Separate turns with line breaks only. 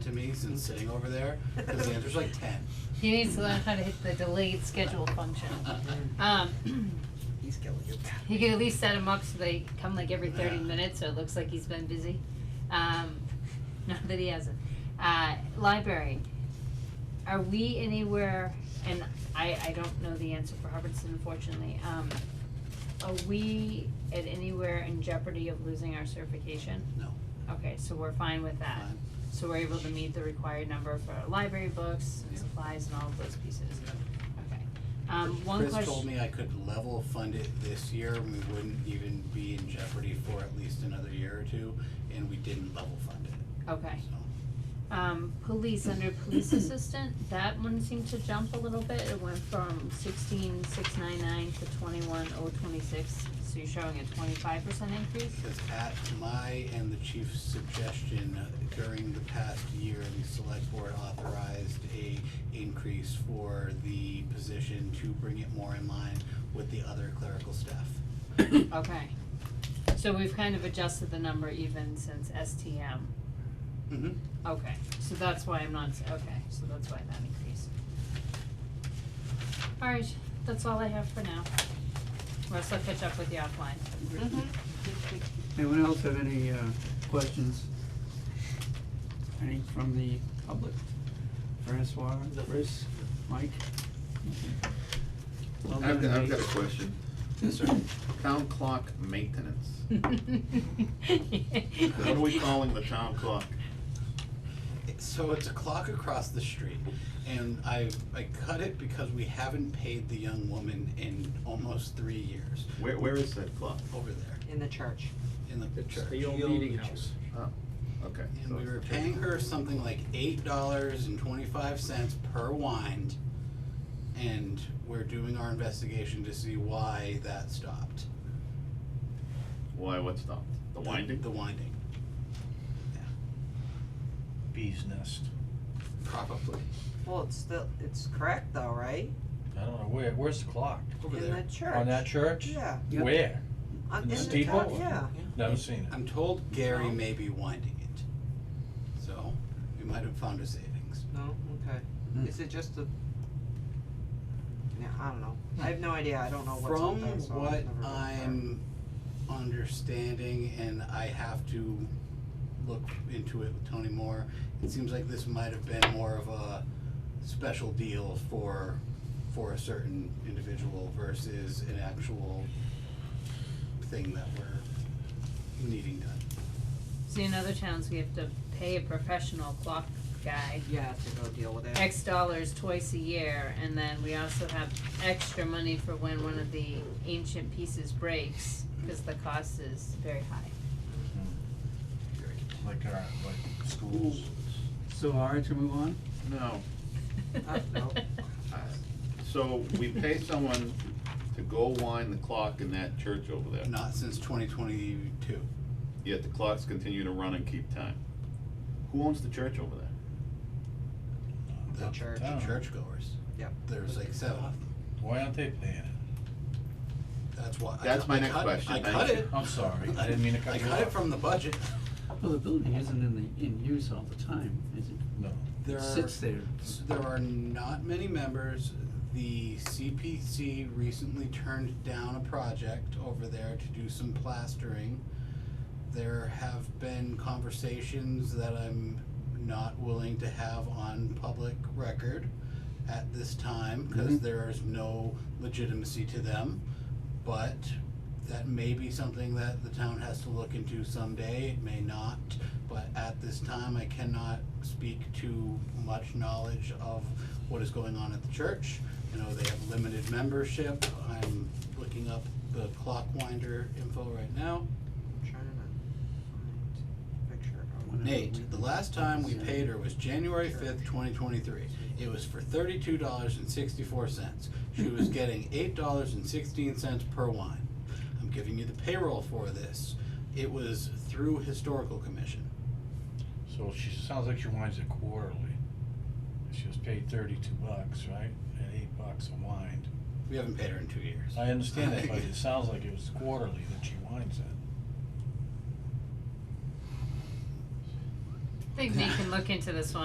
meetings than sitting over there, cause the answer's like ten.
He needs to learn how to hit the delayed schedule function. Um,
He's killing it.
you could at least set him up so they come like every thirty minutes, so it looks like he's been busy. Um, not that he hasn't. Uh, library, are we anywhere, and I, I don't know the answer for Hubbardston unfortunately, um, are we at anywhere in jeopardy of losing our certification?
No,
Okay, so we're fine with that.
fine.
So we're able to meet the required number for our library books and
Yeah.
supplies and all of those pieces. Okay. Um, one
Chris told
question,
me I could level fund it this year, and we wouldn't even be in jeopardy for at least another year or two, and we didn't level fund it,
okay,
so.
um, police, under police assistant, that one seemed to jump a little bit, it went from sixteen six nine nine to twenty-one oh twenty-six, so you're showing a twenty-five percent increase?
Because at my and the chief's suggestion, uh, during the past year, the select board authorized a increase for the position to bring it more in line with the other clerical staff.
Okay, so we've kind of adjusted the number even since STM.
Mm-hmm.
Okay, so that's why I'm not, s- okay, so that's why that increased. Alright, that's all I have for now. Russ, I'll catch up with you offline.
Anyone else have any uh questions? Any from the public? Francois, Chris, Mike? Well,
I've,
then
I've
they-
got a question.
Yes, sir.
Town clock maintenance. What are we calling the town clock?
So it's a clock across the street, and I, I cut it because we haven't paid the young woman in almost three years,
Where, where is that clock?
over there,
In the church.
in the church.
The old meeting house.
Oh, okay. so
And we
it's
were
the
paying
church.
her something like eight dollars and twenty-five cents per wind. And we're doing our investigation to see why that stopped.
Why, what stopped? The winding?
The winding,
Bee's nest.
probably,
Well, it's still, it's correct though, right?
I don't know where, where's the clock?
over
In
there.
the church.
On that church?
Yeah.
Yep.
Where?
On,
In
in
the
the
steeple?
town, yeah.
Never seen it.
I'm told Gary
No.
may be winding it. So, we might have found a savings.
No,
Hmm.
okay. Is it just a? Yeah, I don't know. I have no idea. I don't know what's
From
up there, so
what
I've never been there.
I'm understanding, and I have to look into it with Tony more, it seems like this might have been more of a special deal for, for a certain individual versus an actual thing that we're needing done.
See, in other towns, we have to pay a professional clock guy
Yeah, to go deal with it.
X dollars twice a year, and then we also have extra money for when one of the ancient pieces breaks, cause the cost is very high.
Like our, like schools.
So hard to move on?
No.
Uh, no.
I- So we pay someone to go wind the clock in that church over there,
Not since twenty twenty-two.
yet the clocks continue to run and keep time. Who owns the church over there?
The church.
town.
Churchgoers.
Yep.
There's like seven of them.
Why aren't they paying it?
That's why. I
That's
cut-
my
I
next
cut-
question.
I
Thank
cut
you.
it.
I'm sorry, I didn't mean to cut you
I cut it
off.
from the budget.
Well, the building isn't in the, in use all the time, is it?
No.
There
It
are-
Sits there.
So There are not many members. The CPC recently turned down a project over there to do some plastering. There have been conversations that I'm not willing to have on public record at this time because
Mhm.
is no legitimacy to them. But that may be something that the town has to look into someday, it may not. But at this time, I cannot speak to much knowledge of what is going on at the church. You know, they have limited membership. I'm looking up the clockwinder info right now.
I'm trying to find a picture of it.
Nate, the last time we
uh,
paid her was January fifth, twenty twenty-three. It was for thirty-two dollars and sixty-four cents. She was getting eight dollars and sixteen cents per wine. I'm giving you the payroll for this. It was through historical commission.
So she, sounds like she winds it quarterly. She was paid thirty-two bucks, right? At eight bucks a wind.
We haven't paid her in two years.
I understand that, but it sounds like it was quarterly that she winds it.
I think Nate can look into this one.